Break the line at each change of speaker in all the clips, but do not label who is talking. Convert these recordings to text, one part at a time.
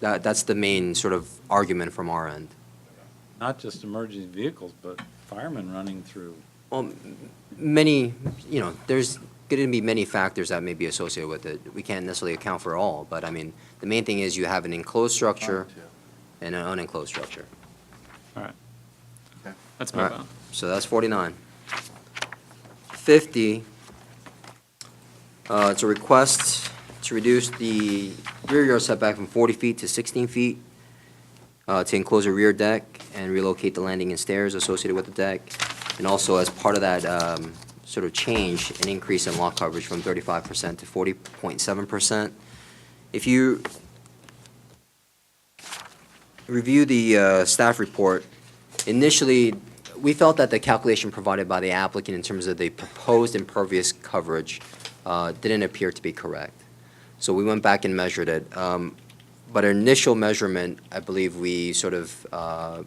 That, that's the main sort of argument from our end.
Not just emergency vehicles, but firemen running through.
Well, m- many, you know, there's going to be many factors that may be associated with it. We can't necessarily account for all, but I mean, the main thing is you have an enclosed structure and an unenclosed structure.
All right.
Okay.
Let's
All
move
right,
on.
so that's 49. 50, uh, it's a request to reduce the rear yard setback from 40 feet to 16 feet, uh, to enclose a rear deck and relocate the landing and stairs associated with the deck. And also, as part of that um, sort of change, an increase in lot coverage from 35% to 40.7%. If you review the uh, staff report, initially, we felt that the calculation provided by the applicant in terms of the proposed impervious coverage uh, didn't appear to be correct. So we went back and measured it. Um, But our initial measurement, I believe we sort of uh,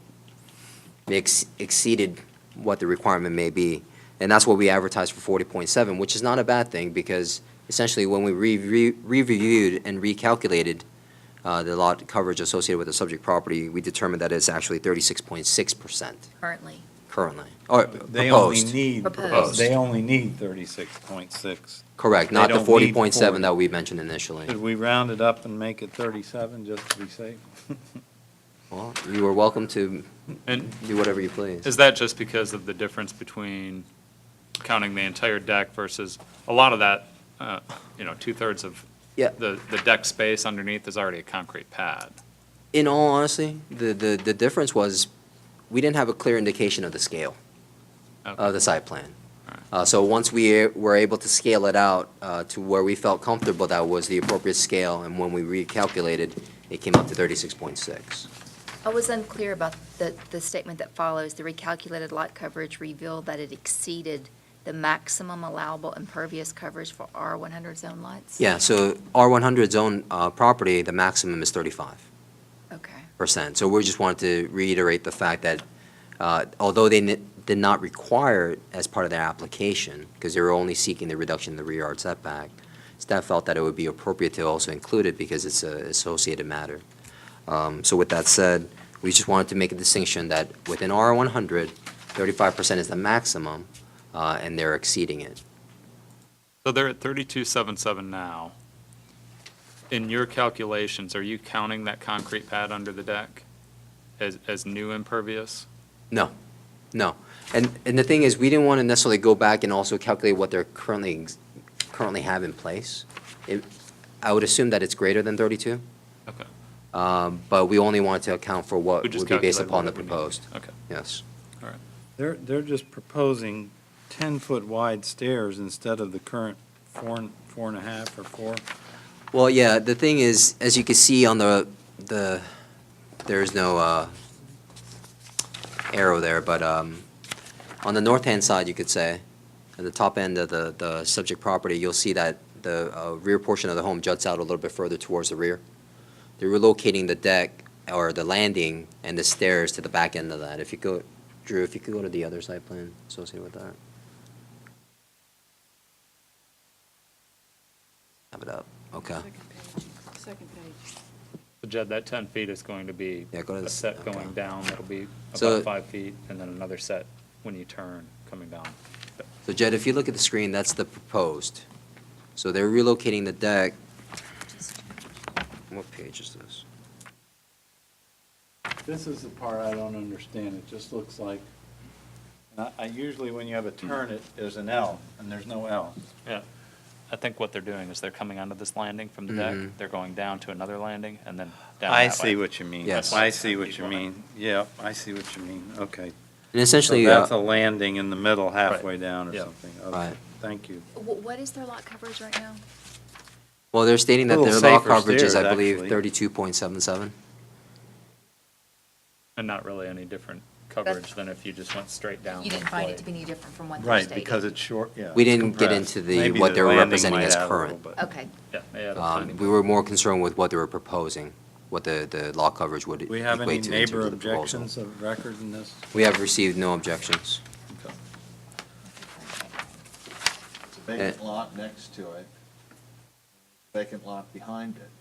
ex- exceeded what the requirement may be. And that's what we advertised for forty point seven, which is not a bad thing because essentially when we re- re- reviewed and recalculated uh, the lot coverage associated with the subject property, we determined that it's actually thirty-six point six percent
currently.
currently, or
They only
proposed.
need,
Proposed.
they only need thirty-six point six.
Correct, not
They
the
don't
forty
need
point seven
40.
that we mentioned initially.
Should we round it up and make it thirty-seven just to be safe?
Well, you are welcome to
And
do whatever you please.
is that just because of the difference between counting the entire deck versus, a lot of that, uh, you know, two-thirds of
Yeah.
the, the deck space underneath is already a concrete pad.
In all honesty, the, the, the difference was, we didn't have a clear indication of the scale of
Okay.
Uh, the site plan.
Alright.
Uh, so once we were able to scale it out, uh, to where we felt comfortable that was the appropriate scale, and when we recalculated, it came up to thirty-six point six.
I was unclear about the, the statement that follows, the recalculated lot coverage revealed that it exceeded the maximum allowable impervious coverage for R one hundred zone lots?
Yeah, so R one hundred zone, uh, property, the maximum is thirty-five.
Okay,
percent. So we just wanted to reiterate the fact that uh, although they ni- did not require it as part of their application, because they were only seeking the reduction in the rear yard setback, staff felt that it would be appropriate to also include it because it's an associated matter. Um, So with that said, we just wanted to make a distinction that within R 100, 35% is the maximum, uh, and they're exceeding it.
So they're at thirty-two seven seven now. In your calculations, are you counting that concrete pad under the deck as, as new impervious?
No, no. And, and the thing is, we didn't want to necessarily go back and also calculate what they're currently, ex- currently have in place. It- I would assume that it's greater than 32,
Okay.
um, but we only wanted to account for what
We
would
just
be based
calculated
upon the
what we need.
proposed.
Okay,
Yes.
all right.
They're, they're just proposing ten-foot wide stairs instead of the current four, and- four and a half or four.
Well, yeah, the thing is, as you can see on the, the, there is no uh, arrow there, but um, on the north-hand side, you could say, at the top end of the, the subject property, you'll see that the uh, rear portion of the home juts out a little bit further towards the rear. They're relocating the deck, or the landing, and the stairs to the back end of that. If you go, Drew, if you could go to the other side plan associated with that. Have it up, okay.
Second page.
So Jed, that 10 feet is going to be
Yeah, go to
a
the-
set
okay.
going down that'll be
So-
about five feet, and then another set when you turn, coming down.
So Jed, if you look at the screen, that's the proposed. So they're relocating the deck. What page is this?
This is the part I don't understand. It just looks like, I, I usually when you have a turn, it, there's an L, and there's no L.
Yeah. I think what they're doing is they're coming onto this landing from the deck,
Mhm.
they're going down to another landing, and then down
Mm-hmm. I
that
see
way.
what you mean.
Yes.
I see what you mean. Yeah, I see what you mean. Okay.
And
So
essentially,
Oh, that's a
uh,
landing in the middle halfway down or
Yeah.
something. Okay,
Right.
thank you.
Wh- what is their lot coverage right now?
well, they're stating that their
Little
lot
safer
coverage is,
stairs,
I believe,
actually.
thirty-two point seven seven.
And not really any different coverage than if you just went straight down.
You didn't
one
find
flight.
it to be any different from what they
Right,
stated?
because it's short, yeah.
We didn't get
compressed.
into the-
Maybe
what they were
landing
representing
might
as
add a little
current.
bit.
Okay,
Yeah, they had a tiny
Um, we
bit.
were more concerned with what they were proposing, what the, the lot coverage would
Do we have any
equate to in terms
neighbor
of the proposal.
objections of record in this?
We have received no objections.
Okay.
Eh,
Vacant lot next to it, vacant lot behind it.